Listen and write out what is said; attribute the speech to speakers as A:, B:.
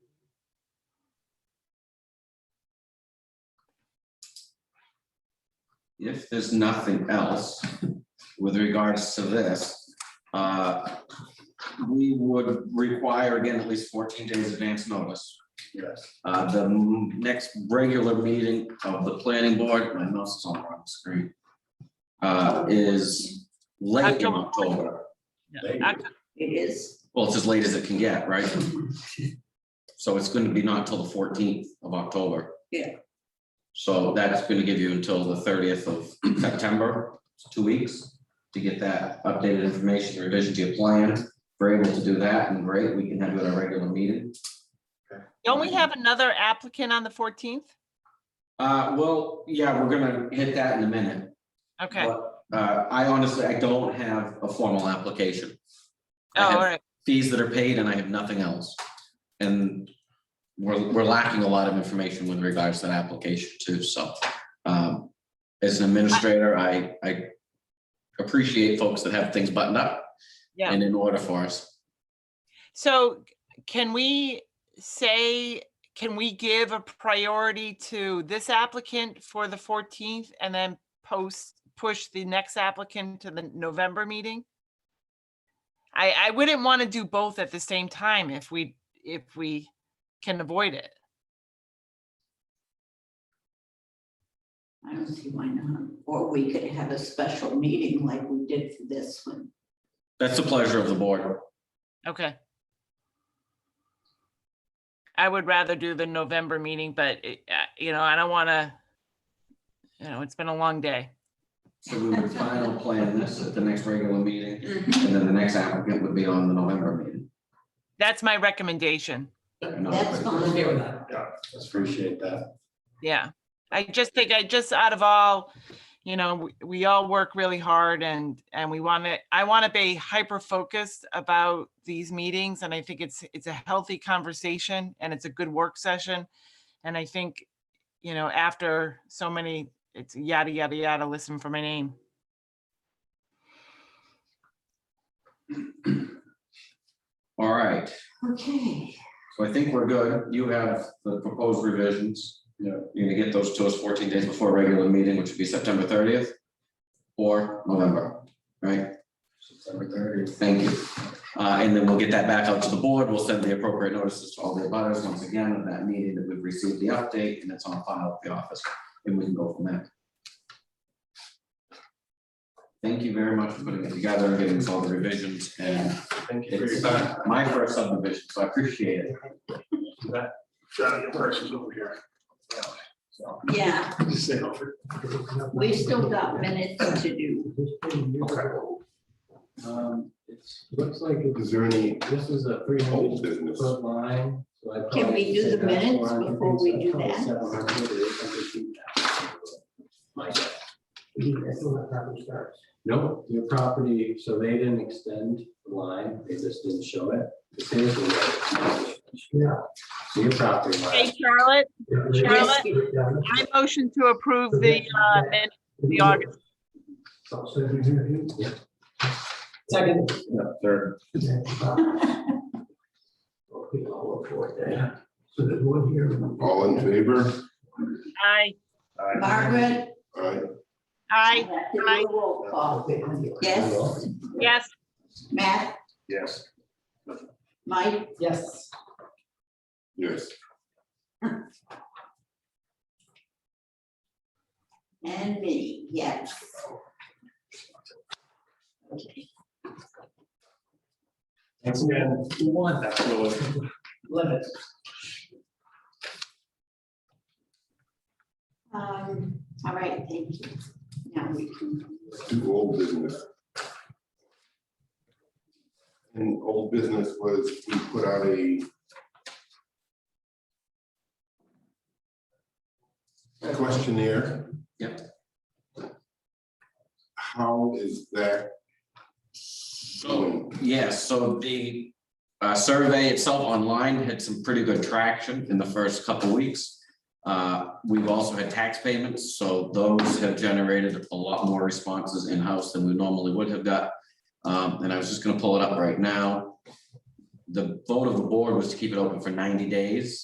A: if there's nothing else with regards to this, uh, we would require again at least fourteen days advance notice.
B: Yes.
A: Uh, the m- next regular meeting of the planning board, my mouse is on the wrong screen, uh, is late in October.
C: It is.
A: Well, it's as late as it can get, right? So it's gonna be not till the fourteenth of October.
C: Yeah.
A: So that's gonna give you until the thirtieth of September, it's two weeks, to get that updated information, revision to your plan. If we're able to do that, and great, we can have it at a regular meeting.
D: Don't we have another applicant on the fourteenth?
A: Uh, well, yeah, we're gonna hit that in a minute.
D: Okay, oh,
A: But, Uh, I honestly, I don't have a formal application. I
D: Oh, all
A: have
D: right,
A: fees that are paid and I have nothing else. And we're, we're lacking a lot of information with regards to that application too, so. um, As an administrator, I, I appreciate folks that have things buttoned up
D: yeah.
A: and in order for us.
D: So can we say, can we give a priority to this applicant for the fourteenth and then post, push the next applicant to the November meeting? I, I wouldn't want to do both at the same time if we, if we can avoid it.
C: I don't see why not. Or we could have a special meeting like we did for this one.
A: That's the pleasure of the board.
D: Okay. I would rather do the November meeting, but, it- uh, you know, I don't want to, you know, it's been a long day.
A: So we would final plan this at the next regular meeting and then the next applicant would be on the November meeting.
D: That's my recommendation.
C: That's fine.
B: Yeah, appreciate that.
D: Yeah. I just think I just out of all, you know, we, we all work really hard and, and we want to, I want to be hyper focused about these meetings. And I think it's, it's a healthy conversation and it's a good work session. And I think, you know, after so many, it's yada, yada, yada, listen for my name.
A: All right.
C: Okay,
A: So I think we're good. You have the proposed revisions.
B: Yeah.
A: You're gonna get those to us fourteen days before a regular meeting, which would be September thirtieth or November, right?
B: September thirtieth.
A: Thank you. Uh, and then we'll get that back out to the board. We'll send the appropriate notices to all the abutters once again of that meeting that we've received the update and it's on file at the office. And we can go from there. Thank you very much for putting it together and giving us all the revisions and
B: Thank you for your
A: it's
B: time.
A: my first subdivision, so I appreciate it.
B: Johnny, your person's over here. So,
C: yeah,
B: Just sit over.
C: we still got minutes to do.
E: This thing years
B: Okay.
E: ago, Um, it's, looks like it's,
B: there any
E: this is a three
B: old
E: hundred
B: business?
E: foot line. so I
C: Can we
E: probably
C: do
E: said
C: the
E: that's
C: minutes
E: 400,
C: before we
E: so
C: do
E: probably
C: that?
E: 700 or 800 feet back. My guess. No, your property, so they didn't extend the line, they just didn't show it. This is the way. Yeah. So your property line.
D: Hey, Charlotte,
C: Charlotte?
D: I motion to approve the, uh, min- the August.
E: Yeah.
F: Second,
B: No, third.
E: Okay, I'll look for it there. So there's one here.
G: All in favor?
D: Aye,
C: Margaret?
G: Aye.
D: aye,
C: Let's do a Roll call. Yes,
D: yes,
C: Matt,
B: Yes.
C: Mike,
F: yes.
G: Yes.
C: and me, yes. Okay.
B: Thanks again.
F: One,
B: Absolutely.
F: limit.
C: Um, all right, thank you. Now we can,
G: Do old business. And old business was we put out a questionnaire.
A: Yep.
G: How is that? going?
A: Yes, so the uh, survey itself online had some pretty good traction in the first couple weeks. Uh, We've also had tax payments, so those have generated a lot more responses in-house than we normally would have got. Um, And I was just gonna pull it up right now. The vote of the board was to keep it open for ninety days.